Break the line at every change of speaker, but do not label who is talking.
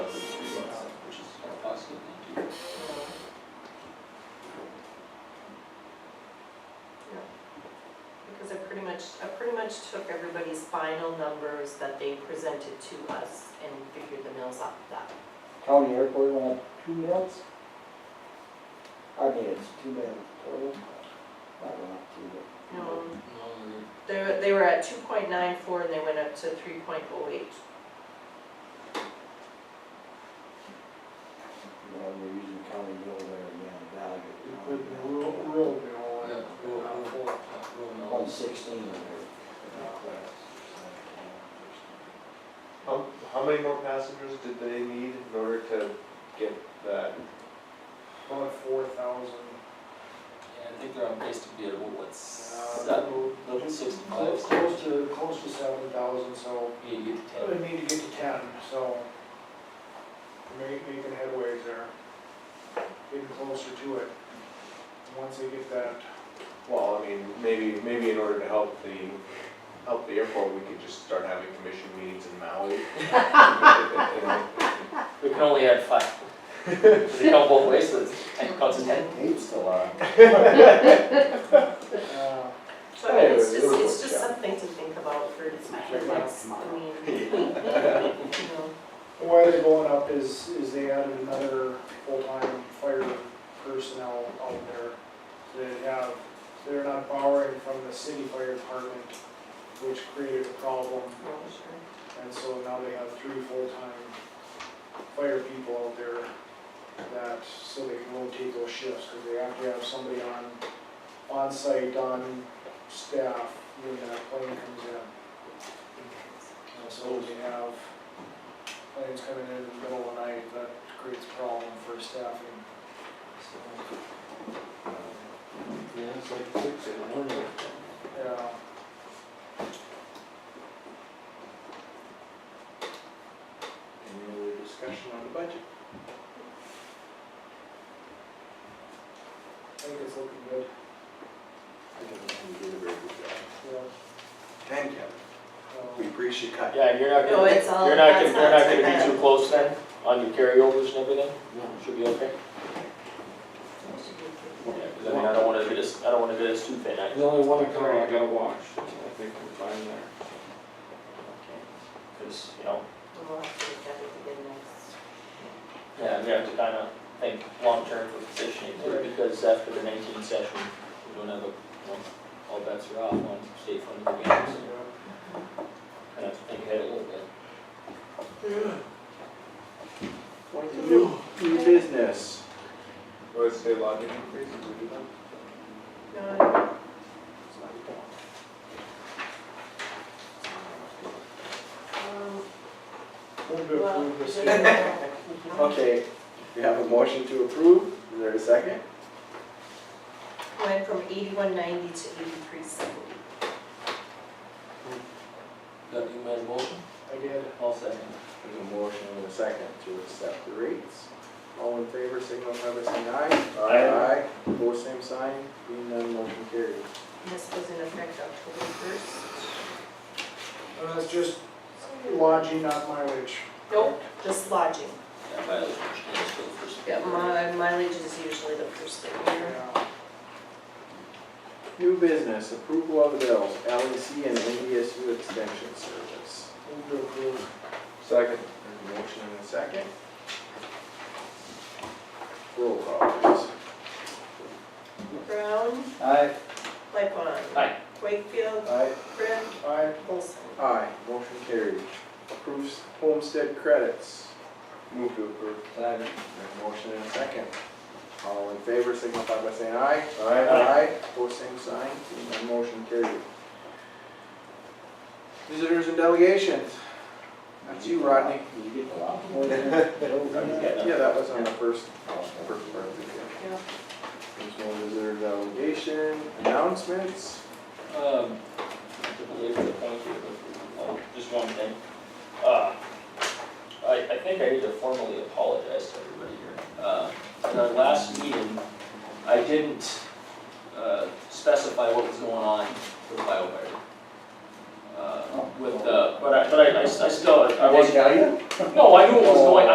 much took everybody's final numbers that they presented to us and figured the mills off of that.
County airport went up two mils? I mean, it's two mils total. Not went up two, but.
Mm-hmm.
No, Um, they were, they were at two point nine four and they went up to three point oh eight.
You know, we're using county mill there again, value.
Put the rural, rural bill
Yeah,
in.
we'll- we'll- we'll- we'll
One
know.
sixteen in
How, how many more passengers did they need in order to get that?
About four thousand.
Yeah, I think they're on pace to be at, what, what's, seven,
Level
level sixty-five,
Close to, close to seven thousand, so
eight, eight to ten.
we need to get to ten, so make, making headways there. Getting closer to it. Once they get that,
Well, I mean, maybe, maybe in order to help the, help the airport, we could just start having commission meetings in Maui.
We can only add five. They count both ways, so it's, ten counts as ten.
Eight's still on.
uh,
So I mean, it's
Anyway,
just,
it'll
it's
work
just
out.
something to think about for the next, I mean, you know.
why they're going up is, is they added another full-time fire personnel out there. They have, they're not borrowing from the city fire department, which created a problem
Oh, sure.
And so now they have three full-time fire people out there that, so they can rotate those shifts, because they have to have somebody on, on site on staff when that plane comes in. And so if you have planes coming in in the middle of the night, that creates a problem for staffing. So,
Yeah, it's like six in the morning.
Yeah.
Any other discussion on the budget?
I think it's looking good,
We did a very good job.
yeah.
Thank you. We
Um,
appreciate that.
Yeah, you're not
No,
gonna,
Oh, it's all-
you're not gonna,
that's
you're not
not
gonna
too bad.
be too close then, on your carryovers and everything? Should be okay? Yeah, cause I mean, I don't wanna get us, I don't wanna get us too thin, I.
There's only one car I gotta wash, so I think we're fine there.
Cause, you know,
We'll have to look at it again next.
Yeah, we have to kind of think long-term for positioning too, because after the nineteen session, we don't have a, well, all bets are off on state funded games.
yeah.
Kind of think ahead a little bit.
New, new business.
Was state lodging increase, did we do that?
No, um,
Move to
well,
approve this.
no.
Okay, we have a motion to approve. Is there a second?
went from eighty-one ninety to eighty-three seventy.
Doug, you made a motion?
I did.
I'll second.
There's a motion and a second to accept the rates. All in favor, signify by saying aye. Aye. Opposed, same sign. Being none, motion carried.
This was in effect October first.
Uh, it's just lodging, not mileage.
Nope, just lodging.
Yeah, by the way, change to the first.
Yeah, mi- mileage is usually the first thing here.
Yeah.
New business, approval of bills, LEC and NDSU extension service.
Move to approve.
Second.
There's a motion and a second. Roll call, please.
Brown,
Aye.
Lightfon.
Aye.
Wakefield,
Aye.
Brett,
Aye.
Olson.
Aye, motion carried. Approves homestead credits.
Move to approve.
Second.
There's a motion and a second. All in favor, signify by saying aye.
Aye.
Aye. Both same sign, Seeing none, motion carried. Visitors and delegations. That's you, Rodney.
You get a lot more than that.
Yeah, that was on the first,
Oh,
first part of the deal.
Yeah.
There's no visitor delegation, announcements.
Um, to belabor the point here, but, oh, just one thing. Uh, I, I think I need to formally apologize to everybody here. Uh, at our last meeting, I didn't, uh, specify what was going on with BioWare. Uh, with the, but I, but I, I s- I still, I
Did they
wasn't,
tell you?
no, I knew what was going,